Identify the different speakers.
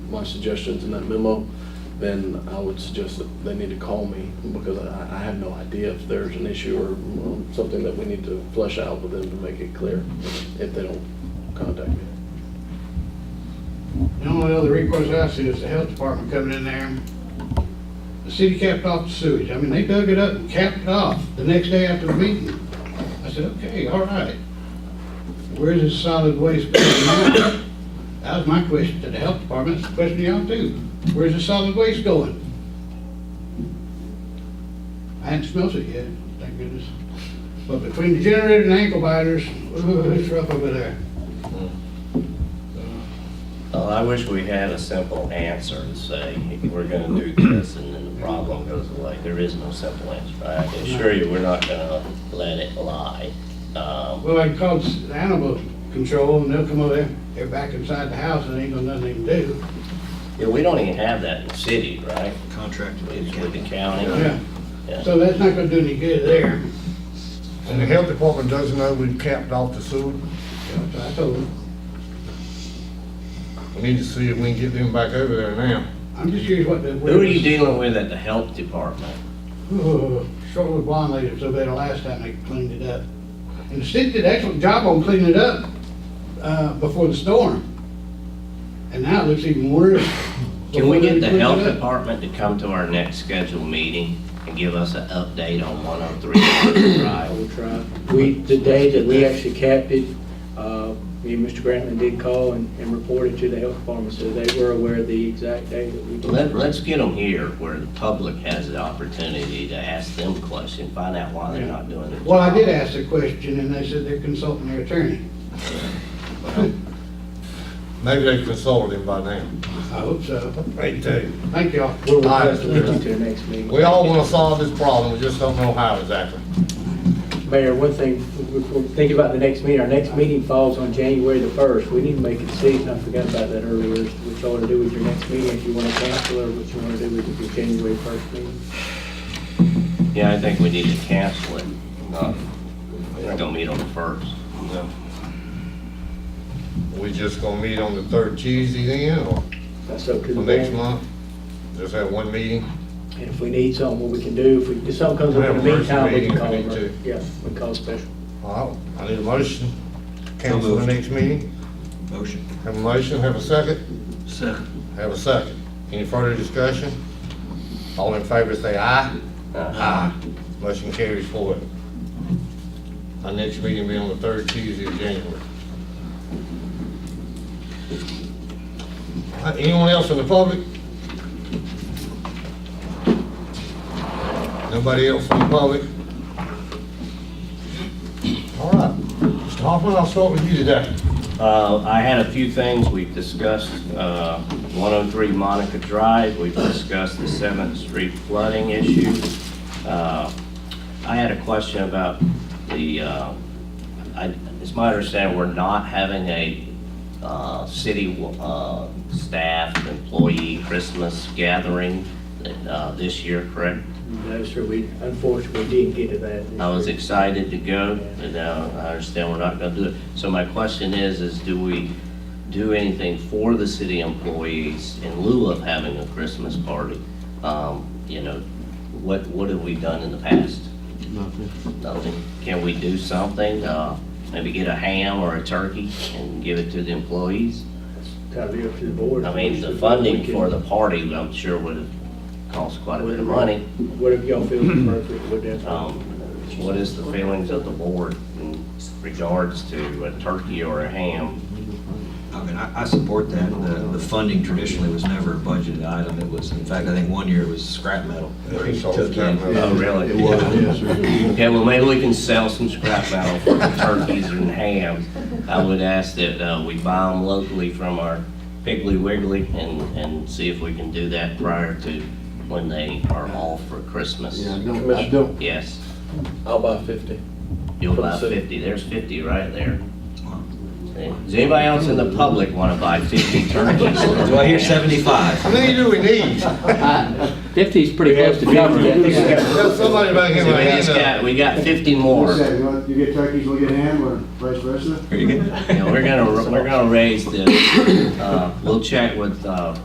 Speaker 1: my suggestions in that memo, then I would suggest that they need to call me because I, I have no idea if there's an issue or um, something that we need to flesh out with them to make it clear if they don't contact me.
Speaker 2: The only other recourse I see is the health department coming in there. The city capped off the sewage. I mean, they dug it up and capped it off the next day after the meeting. I said, okay, all right. Where's this solid waste? going now? That was my question to the health department. It's a question to y'all too. Where's the solid waste going? I hadn't smelt it yet, thank goodness. But between the generator and ankle biters, ooh, it's rough over there.
Speaker 3: Well, I wish we had a simple answer to say, we're gonna do this, and then the problem goes away. There is no simple answer. I can assure you, we're not gonna let it lie. Um,
Speaker 2: Well, I can call the animal control and they'll come over there, they're back inside the house and ain't gonna nothing they can do.
Speaker 3: Yeah, we don't even have that in the city, right?
Speaker 4: Contracted with the
Speaker 3: It's with the
Speaker 4: county.
Speaker 3: county.
Speaker 2: Yeah,
Speaker 3: Yeah.
Speaker 2: so that's not gonna do any good there.
Speaker 5: And the health department doesn't know we've capped off the sewer.
Speaker 2: So I told them,
Speaker 5: We need to see if we can get them back over there now.
Speaker 2: I'm just curious what the.
Speaker 3: Who are you dealing with at the health department?
Speaker 2: Oh, Short with blonde lady, so bad the last time they cleaned it up. And the city did an excellent job on cleaning it up, uh, before the storm. And now it looks even worse.
Speaker 3: Can we get the
Speaker 2: Before they
Speaker 3: health
Speaker 2: cleaned it up.
Speaker 3: department to come to our next scheduled meeting and give us an update on 103
Speaker 6: I
Speaker 3: Drive?
Speaker 6: will try. We, the day that we actually capped it, uh, me and Mr. Grantland did call and, and reported to the health department, so they were aware of the exact day that we did.
Speaker 3: Let, let's get them here where the public has the opportunity to ask them questions, find out why they're not doing it.
Speaker 2: Well, I did ask the question and they said they're consulting their attorney.
Speaker 5: Maybe they consulted him by now.
Speaker 2: I hope so.
Speaker 5: They do.
Speaker 2: Thank y'all.
Speaker 6: We'll
Speaker 5: Ah,
Speaker 6: request a meeting to the next meeting.
Speaker 5: We all want to solve this problem, we just don't know how exactly.
Speaker 6: Mayor, one thing, we're thinking about the next meeting, our next meeting falls on January the 1st. We need to make it season, I forgot about that earlier, is what y'all want to do with your next meeting, if you want to cancel or what you want to do with your January 1st meeting.
Speaker 3: Yeah, I think we need to cancel it. Not- We're gonna meet on the first.
Speaker 5: We just gonna meet on the third Tuesday then, or
Speaker 6: That's up to the
Speaker 5: the next
Speaker 6: board.
Speaker 5: month? Just have one meeting?
Speaker 6: And if we need something, what we can do, if we, if something comes up in the
Speaker 5: We have a
Speaker 6: meantime, we
Speaker 5: emergency
Speaker 6: can call.
Speaker 5: meeting if we
Speaker 6: her.
Speaker 5: need
Speaker 6: Yeah, we call special.
Speaker 5: All right, I need a motion. Cancel the next meeting.
Speaker 4: Motion.
Speaker 5: Have a motion, have a second?
Speaker 4: Second.
Speaker 5: Have a second. Any further discussion? All in favor say aye. Aye. Motion carries forward. Our next meeting will be on the third Tuesday of January. All right, Uh, Anyone else in the public? Nobody else in the public? All right. Mr. Hoffman, I'll start with you today.
Speaker 3: Uh, I had a few things we've discussed, uh, 103 Monica Drive, we've discussed the 7th Street flooding issue. Uh, I had a question about the, uh, I- it's my understanding we're not having a uh, city uh, staff employee Christmas gathering uh, this year, correct?
Speaker 6: No, sir, we unfortunately didn't get to that.
Speaker 3: I was excited to go, and now I understand we're not gonna do it. So my question is, is do we do anything for the city employees in lieu of having a Christmas party? Um, You know, what, what have we done in the past? Nothing. Nothing. Can we do something, uh, maybe get a ham or a turkey and give it to the employees?
Speaker 6: Kind of up to the board.
Speaker 3: I mean, the funding for the party, I'm sure would have cost quite a bit of money.
Speaker 6: Whatever y'all feel is appropriate, would
Speaker 3: Um,
Speaker 6: definitely.
Speaker 3: What is the feelings of the board in regards to a turkey or a ham?
Speaker 4: I mean, I, I support that. The, the funding traditionally was never a budgeted item. It was, in fact, I think one year it was scrap metal.
Speaker 5: Yeah, it's all
Speaker 4: Took in.
Speaker 5: scrap metal.
Speaker 3: Oh, really? Okay, well, maybe we can sell some scrap metal for the turkeys and hams. I would ask that uh, we buy them locally from our Piggly Wiggly and, and see if we can do that prior to when they are off for Christmas.
Speaker 1: Commissioner,
Speaker 3: Yes,
Speaker 1: I'll buy 50.
Speaker 3: you'll buy
Speaker 1: From the city.
Speaker 3: 50. There's 50 right there. Does anybody else in the public want to buy 50 turkeys?
Speaker 4: Do I hear 75?
Speaker 5: How many do we need?
Speaker 7: Fifty's pretty close to covering it.
Speaker 5: There's somebody back here
Speaker 3: So
Speaker 5: with
Speaker 3: we
Speaker 5: a
Speaker 3: just
Speaker 5: hand up.
Speaker 3: got, we got 50 more.
Speaker 8: Okay, you want- you get turkeys, we'll get ham, or vice versa?
Speaker 4: Very good.
Speaker 3: You know, We're gonna, we're gonna raise the, uh, we'll check with uh,